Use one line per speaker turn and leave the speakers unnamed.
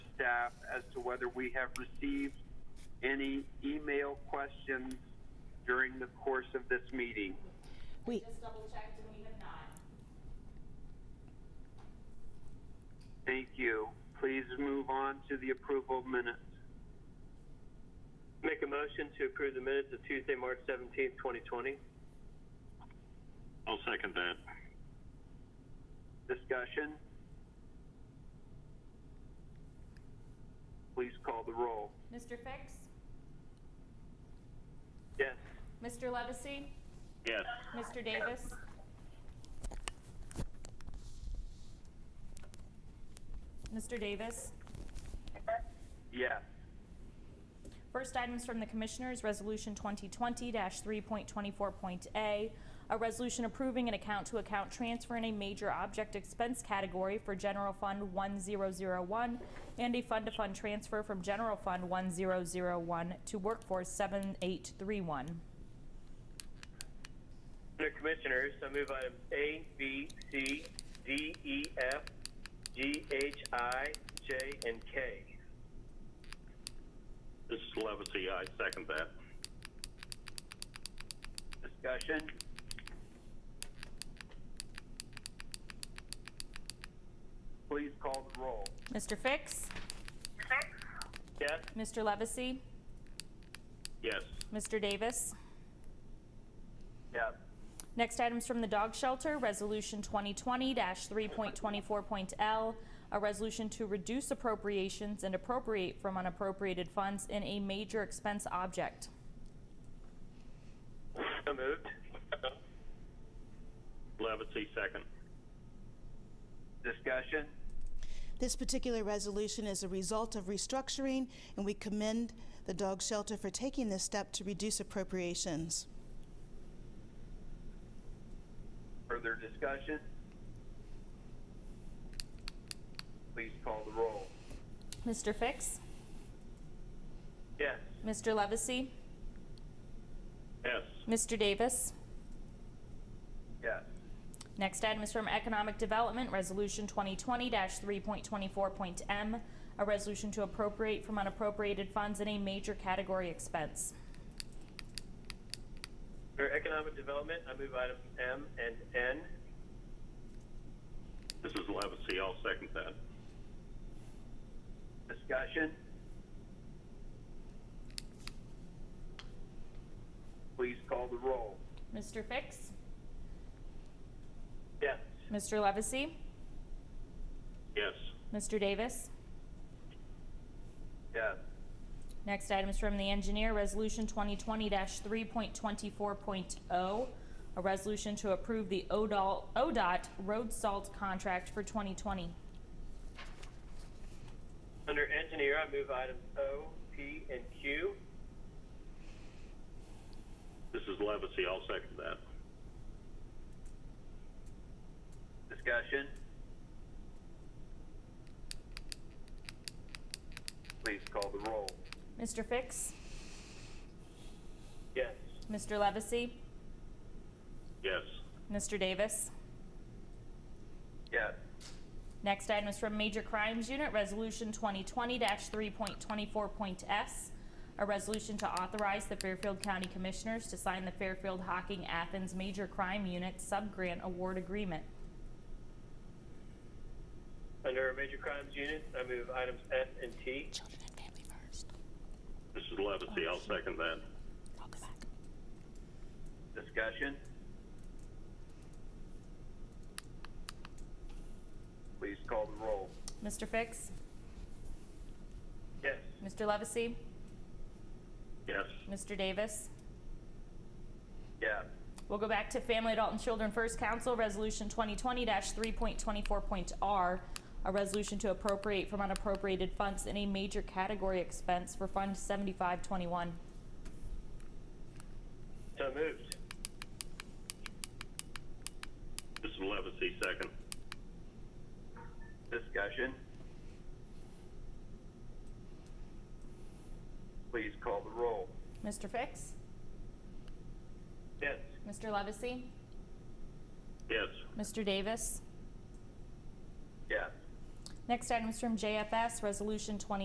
staff as to whether we have received any email questions during the course of this meeting.
We,
Just double checked and we have not.
Thank you. Please move on to the approval of minutes.
Make a motion to approve the minutes of Tuesday, March seventeenth, twenty twenty.
I'll second that.
Discussion? Please call the roll.
Mr. Fix?
Yes.
Mr. Levesey?
Yes.
Mr. Davis? Mr. Davis?
Yes.
First items from the Commissioners, Resolution 2020-3.24.a, a resolution approving an account-to-account transfer in a major object expense category for General Fund 1001 and a fund-to-fund transfer from General Fund 1001 to Workforce 7831.
Under Commissioners, I move items A, B, C, D, E, F, G, H, I, J, and K.
This is Levesey. I second that.
Discussion? Please call the roll.
Mr. Fix?
Yes.
Mr. Levesey?
Yes.
Mr. Davis?
Yes.
Next items from the dog shelter, Resolution 2020-3.24.L, a resolution to reduce appropriations and appropriate from unappropriated funds in a major expense object.
So moved.
Levesey, second.
Discussion?
this particular resolution is a result of restructuring, and we commend the dog shelter for taking this step to reduce appropriations.
Further discussion? Please call the roll.
Mr. Fix?
Yes.
Mr. Levesey?
Yes.
Mr. Davis?
Yes.
Next item is from Economic Development, Resolution 2020-3.24.M, a resolution to appropriate from unappropriated funds in a major category expense.
Under Economic Development, I move items M and N.
This is Levesey. I'll second that.
Discussion? Please call the roll.
Mr. Fix?
Yes.
Mr. Levesey?
Yes.
Mr. Davis?
Yes.
Next item is from the engineer, Resolution 2020-3.24.0, oh, a resolution to approve the ODOL ODOT road salt contract for 2020.
Under Engineer, I move items O, P, and Q.
This is Levesey. I'll second that.
Discussion? Please call the roll.
Mr. Fix?
Yes.
Mr. Levesey?
Yes.
Mr. Davis?
Yes.
Next item is from Major Crimes Unit, Resolution 2020-3.24.S, a resolution to authorize the Fairfield County Commissioners to sign the Fairfield Hocking Athens Major Crime Unit Subgrant Award Agreement.
Under Major Crimes Unit, I move items S and T.
Children and family first.
This is Levesey. I'll second that.
I'll go back.
Discussion? Please call the roll.
Mr. Fix?
Yes.
Mr. Levesey?
Yes.
Mr. Davis?
Yes.
We'll go back to Family, Adult, and Children First Council, Resolution 2020-3.24.R, a resolution to appropriate from unappropriated funds in a major category expense for Fund 7521.
So moved.
This is Levesey, second.
Discussion? Please call the roll.
Mr. Fix?
Yes.
Mr. Levesey?
Yes.
Mr. Davis?
Yes.
Next item is from JFS, Resolution 20